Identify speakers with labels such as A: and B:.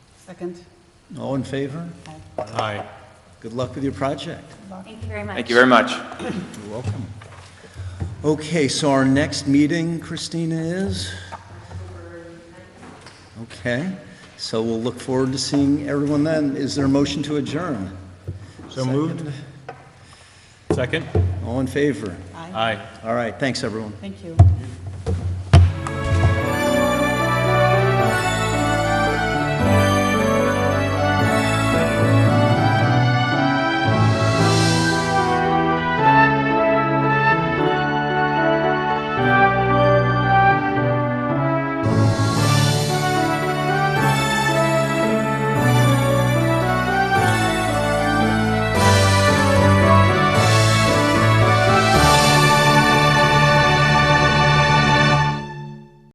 A: Second.
B: All in favor?
C: Aye.
B: Good luck with your project.
D: Thank you very much.
E: Thank you very much.
B: You're welcome. Okay, so our next meeting, Christina, is? Okay, so we'll look forward to seeing everyone then. Is there a motion to adjourn?
C: So moved. Second?
B: All in favor?
C: Aye.
B: All right, thanks, everyone.
A: Thank you.